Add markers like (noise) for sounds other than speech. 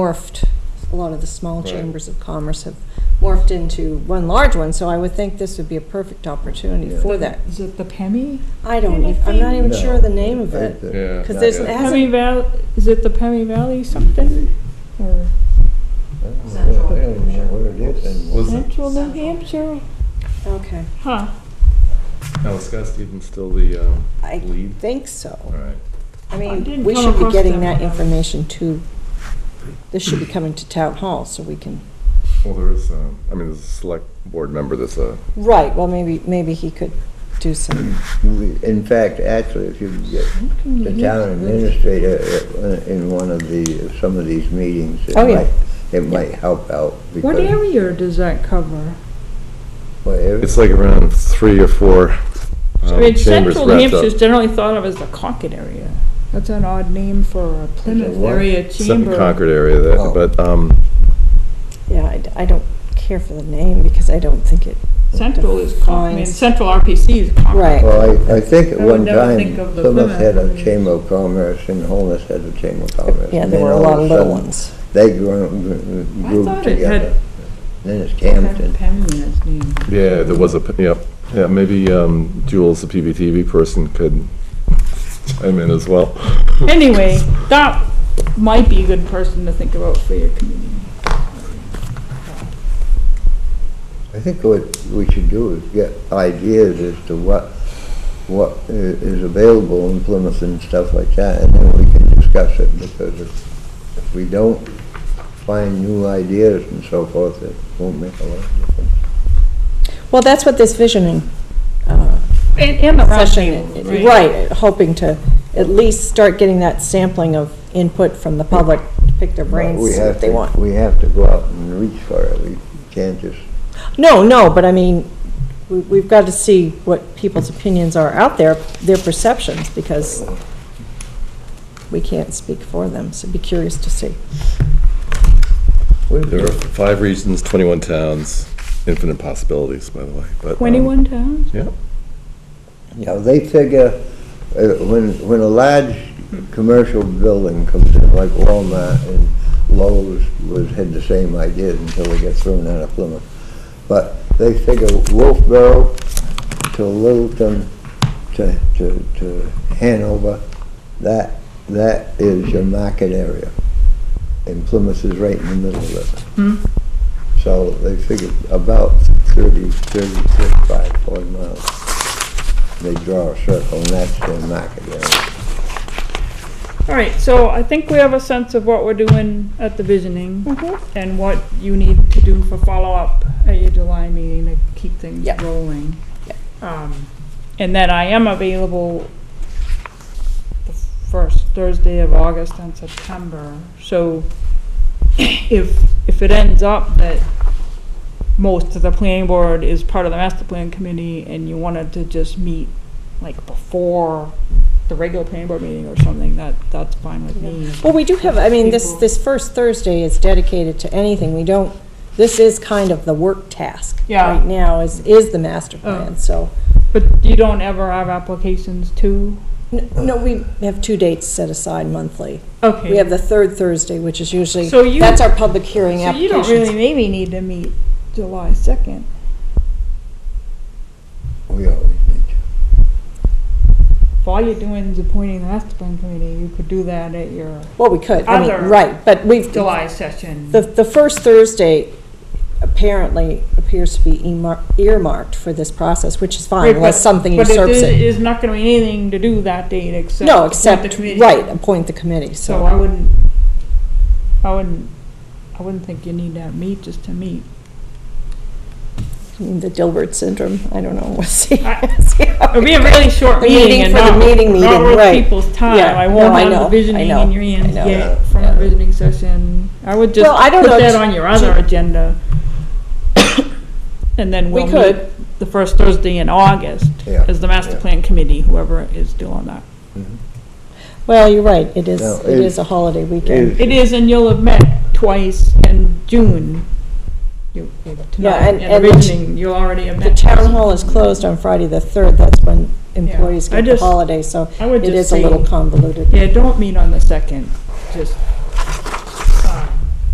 morphed, a lot of the small Right. chambers of commerce have morphed into one large one, so I would think this would be a perfect opportunity for that. Is it the Pemmy? I don't, ev- I'm not even sure of the name of it, Yeah. because there's, it Yeah. hasn't, Pemmy Valley, is it the Pemmy Valley something? Or Central. I don't know what it is anymore. Was Central New Hampshire? okay, Huh. Mm-hmm. now is Scott Stevens still the um, I lead? think so. All right. I I mean, didn't we come should be across getting them that when I was- information to, this should be coming to town hall, so we can, Well, there is. Um, I mean, there's a select board member that's uh, a. right, well, maybe, maybe he could do some, You- In fact, actually, if you get the town administrator uh, in one of the, some of these meetings, it Oh, yeah. might, it might help out. What because area does that cover? whatever- It's like around three or four. I um, mean, chambers Central New wrapped Hampshire is up. generally thought of as the Concord area. That's an odd name for a Plymouth what? area chamber. Second Concord area, that, Oh. but um, yeah, I d- I don't care for the name, because I don't think it, Central is, Con- I mean, Defines- Central RPC is Concord. right. Well, I, I think at I would one never time, think of the Plymouth Plymouth had a area. chamber of commerce and Holness had a chamber of commerce. Yeah, and there then were a all lot of of little sudden, ones. They grew, grew grew thought it had- together. Then it's Had Camden. Pemmy in its name. yeah, there was a. p- Yep. Yeah, maybe um, Jules, the PVTV person, could chime in as well. Anyway, that might be a good person to think about for your community. I think what we should do is get ideas as to what, what i- is available in Plymouth and stuff like that, and then we can discuss it, because if, if we don't find new ideas and so forth, it won't make a lot of difference. Well, that's what this visioning uh, And, and the session, roundtable, right, hoping to at least start getting that sampling of input from the public, pick their brains, We see have what they to- want. We have to go out and reach for it, we can't just, No, no, but I mean, we- we've got to see what people's opinions are out there, their perceptions, because we can't speak for them, so be curious to see. we're There are five regions, 21 towns, infinite possibilities, by the way. But um, Twenty-one towns? Yeah. You know, they figure, uh, when, when a large commercial building comes in, like Walmart and Lowe's was, had the same idea until they got thrown out of Plymouth. But they figure Wolfboro to Littleton to, to, to Hanover, that, that is your market area. And Plymouth is right in the middle of it. Hmm. So they figured about 30, 30, 35, 40 miles they draw a circle, and that's their market area. All right, so I think we have a sense of what we're doing at the Hmm. visioning and what you need to do for follow-up at your July meeting to keep things Yep. rolling. Um, And then I am available the first Thursday of August and September. So if, if it ends up that most of the planning board is part of the master plan committee and you wanted to just meet like before the regular planning board meeting or something, that, that's fine with me. Well, we do have, I mean, this, People- this first Thursday is dedicated to anything. We don't, this is kind of the work task. Yeah. Right now is, is the master Oh. plan, so. But you don't ever have applications too? N- No, we have two dates set aside monthly. Okay. We have the third Thursday, which is usually, So you- that's our public hearing So you don't really applications. maybe need to meet July second. We always need to. If all you're doing is appointing the master plan committee, you could do that at your Well, we could, I mean, Other- right, but we've, July session. the, the first Thursday apparently appears to be emar- earmarked for this process, which is Right, fine, but- unless something But usurps it it. is- is not gonna be anything to do that date except. No, appoint the except, committee. right, appoint the committee, So I so. wouldn't, I wouldn't, I wouldn't think you need to meet just to meet. I mean, The Dilbert syndrome, I don't know, (laughs) we'll see. I- See how It'd be it a goes. really short The meeting meeting and for the not, meeting not meeting, worth right. people's time. Yeah. I No, won't I have know, I the visioning know, in your hands I know. yet from a visioning session. I would just Well, I don't put know, that ju- on your other agenda. (coughs) And then We we'll meet could. the first Thursday in August Yeah, as the master yeah. plan committee, whoever is still on that. Mm-hmm. Well, you're right, it is, No, it it- is a holiday weekend. It is, and you'll have met twice in June. You- you- Tonight, and- and the and the ch- visioning, you'll already have The met. town hall is closed on Friday the 3rd, that's when employees I get the just- holiday, so I would it just is a say- little convoluted. Yeah, don't meet on the second, just